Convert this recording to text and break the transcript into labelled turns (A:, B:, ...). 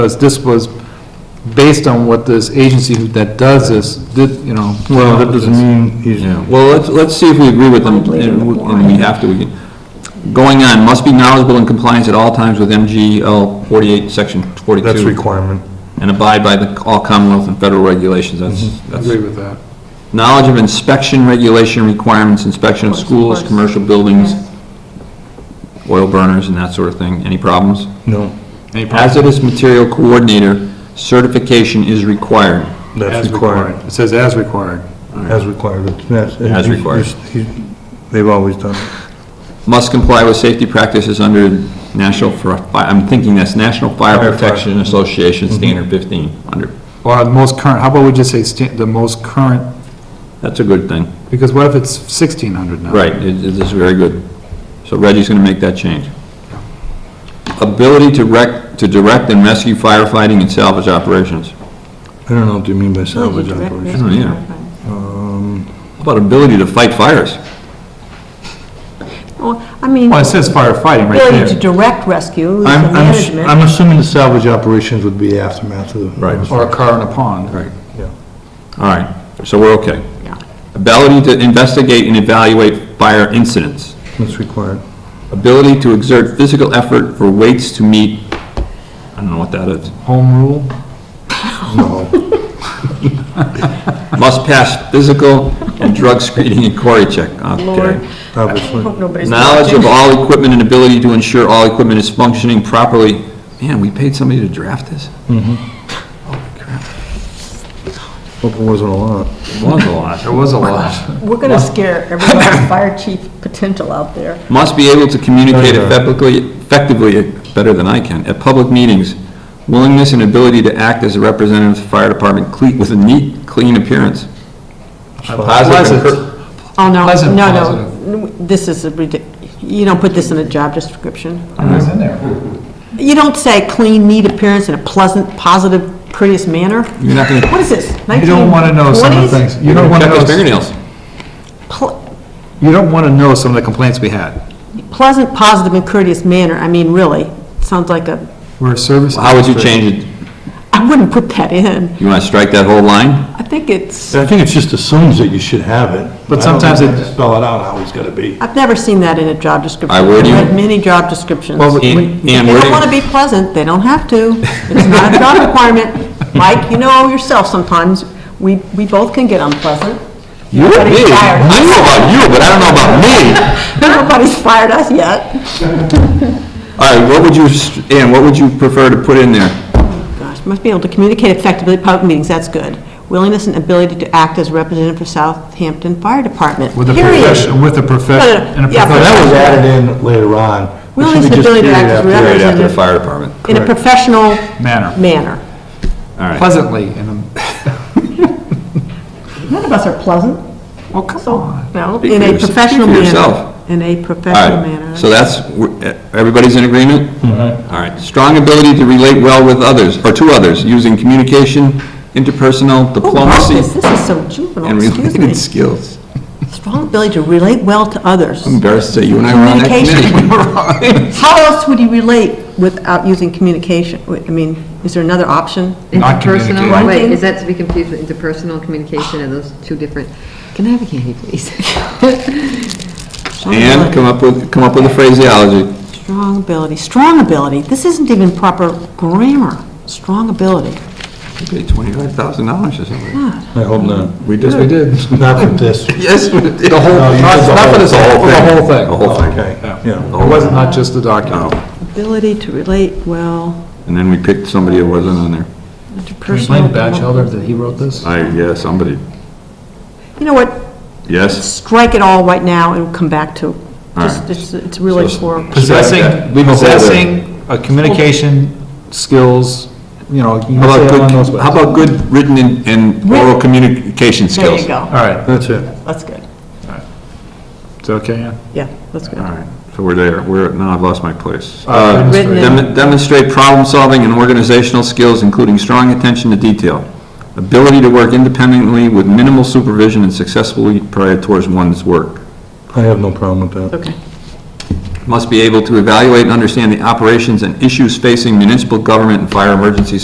A: because this was based on what this agency that does this did, you know.
B: Well, that doesn't mean he's,
C: Yeah, well, let's, let's see if we agree with them,
D: I'm bleeding
C: and we-
D: the
C: and we have to, we can. Going on, must be knowledgeable and compliance at all times with MGL 48, section 42.
B: that's requirement.
C: And abide by the, all Commonwealth and federal regulations, that's,
B: Mm-hmm.
A: Agree
C: that's.
A: with that.
C: Knowledge of inspection regulation requirements, inspection of
D: Of course, of
C: schools,
D: course.
C: commercial buildings,
D: Yes.
C: oil burners and that sort of thing, any problems?
B: No,
A: Any problem?
C: Hazardous material coordinator certification is required.
B: that's
A: As
B: required.
A: It says as required.
B: As required, it's- that's.
C: As
B: he's-
C: required.
B: he's- he's- They've always done it.
C: Must comply with safety practices under National, Fir- Fi- I'm thinking that's National Fire
B: Fire Mm-hmm.
C: Protection Association Standard 15, under,
A: Or the most current, how about we just say sta- the most current,
C: that's a good thing.
A: because what if it's sixteen hundred now?
C: Right, it it is very good. So Reggie's gonna make that change. Ability to rec, to direct and rescue firefighting and salvage operations.
B: I don't know what you mean by
D: Well,
B: salvage
D: you direct
B: operation. Um,
D: rescue
C: yeah.
D: firefighters.
C: How about ability to fight fires?
D: Well, I mean,
A: Well, it says firefighting right
D: ability to
A: there.
D: direct rescue, the
B: I'm, I'm, ass-
D: management.
B: I'm assuming the salvage operations would be aftermath of the.
C: Right.
A: Or a car in a pond.
C: Right.
B: Yeah.
C: All right, so we're okay.
D: Yeah.
C: Ability to investigate and evaluate fire incidents.
B: That's required.
C: Ability to exert physical effort for weights to meet, I don't know what that is.
A: Home rule?
B: No,
C: Must pass physical and drug screening and quality check,
D: Lord.
C: okay.
B: obviously.
D: Hope nobody's
C: Knowledge of
D: watching.
C: all equipment and ability to ensure all equipment is functioning properly. Man, we paid somebody to draft this?
B: Hope it wasn't a lot.
C: It was a lot.
A: was a lot.
D: We're gonna scare every last fire chief potential out there.
C: Must be able to communicate
B: Right.
C: effectively, effectively, better than I can, at public meetings. Willingness and ability to act as a representative of the fire department cle- with a neat, clean appearance. Positive and
A: Pleasant.
C: cur-
D: Oh, no,
A: Pleasant
D: no, no, this is a ridic, you don't put this in a job description.
A: It's in there.
D: You don't say clean, neat appearance in a pleasant, positive, prettiest manner.
C: You're not gonna,
D: What is this,
A: You don't wanna know some of the
D: 1920s?
A: things. You
C: you're
A: don't
C: gonna
A: wanna
C: check his
A: know,
C: fingernails.
D: Ple-
A: you don't wanna know some of the complaints we had.
D: Pleasant, positive, and courteous manner, I mean, really, sounds like a,
A: We're a service.
C: How would you
A: industry.
C: change it?
D: I wouldn't put that in.
C: You wanna strike that whole line?
D: I think it's,
B: I think it just assumes that you should have it.
A: But
B: I don't
A: sometimes
B: think
A: it-
B: you Spell it out how it's gotta be.
D: I've never seen that in a job description.
C: I would.
D: have read many job descriptions.
A: Well, but-
C: And
D: If
C: and
D: they
C: where do
D: don't
C: you-
D: want to be pleasant, they don't have to. It's not a job requirement. Mike, you know yourself, sometimes, we, we both can get unpleasant.
C: You, me, I
D: Nobody's fired us.
C: know about you, but I don't know about me.
D: Nobody's fired us yet.
C: All right, what would you, Ann, what would you prefer to put in there?
D: Gosh, must be able to communicate effectively at public meetings, that's good. Willingness and ability to act as representative for Southampton Fire Department,
A: With a
D: period.
A: profession, with a profession.
D: No, no, no.
A: and a
D: Yeah,
B: No, that was
A: professional-
B: added in later on.
D: We
B: It
D: only
B: should be
D: said
B: just
D: ability to
B: period
D: act as
B: after-
D: rep-
C: Right after the fire department.
D: In a
B: correct.
D: professional
A: Manner.
D: manner.
C: All right.
A: Pleasantly, and,
D: None of us are pleasant,
A: well, come
D: so,
A: on.
D: no,
C: Speak
D: in
C: for
D: a
C: yourse- speak
D: professional
C: for
D: manner.
C: yourself.
D: In a
C: All
D: professional manner.
C: right, so that's, we're- everybody's in agreement?
B: Mm-hmm.
C: All right, strong ability to relate well with others, or to others, using communication, interpersonal,
D: Who wrote
C: diplomacy,
D: this? This is so
C: and
D: juvenile, excuse me.
C: related skills.
D: Strong ability to relate well to others.
C: Embarrassed to say you and I were on that committee.
D: Communication.
C: We were on.
D: How else would you relate without using communication? I mean, is there another option?
A: Not
E: Interpersonal,
A: communicating.
E: wait, is that to be confused with interpersonal communication, are those two different? Can I have a candy, please?
C: And come up with, come up with a phraseology.
D: Strong ability, strong ability, this isn't even proper grammar, strong ability.
C: You paid $25,000 or something.
D: Ah,
B: I hope not.
C: We did. We did.
B: Not with this.
C: Yes, we did.
A: The whole,
B: No, you
A: not
B: did the
A: not for
B: whole-
A: this,
B: the
A: whole, the whole thing.
C: The whole thing.
B: Okay, yeah.
A: It wasn't not just the document.
D: Ability to relate well,
C: Oh, And then we picked somebody that wasn't on there.
A: Can we
D: interpersonal.
A: blame Batchelder that he wrote this?
C: I, yeah, somebody,
D: You know what,
C: yes?
D: strike it all right now and come back to,
C: All
D: just,
C: right.
D: it's, it's really
C: So-
D: for,
A: Possessing,
C: Leave a hole there.
A: possessing a communication skills, you know, you can
C: How
A: say
C: about
A: it along those
C: good,
A: ways.
C: how about good written and- and oral communication
D: there
C: skills?
D: you
A: All
D: go,
A: right,
B: That's it.
D: that's good,
A: is that okay, Ann?
D: yeah, that's good.
C: All right, so we're there, we're, now I've lost my place.
A: Uh,
C: Uh,
D: Written
C: dem-
D: in.
C: Demonstrate problem-solving and organizational skills, including strong attention to detail, ability to work independently with minimal supervision and successfully prior towards one's work.
B: I have no problem with that.
D: Okay,
C: must be able to evaluate and understand the operations and issues facing municipal government and fire emergency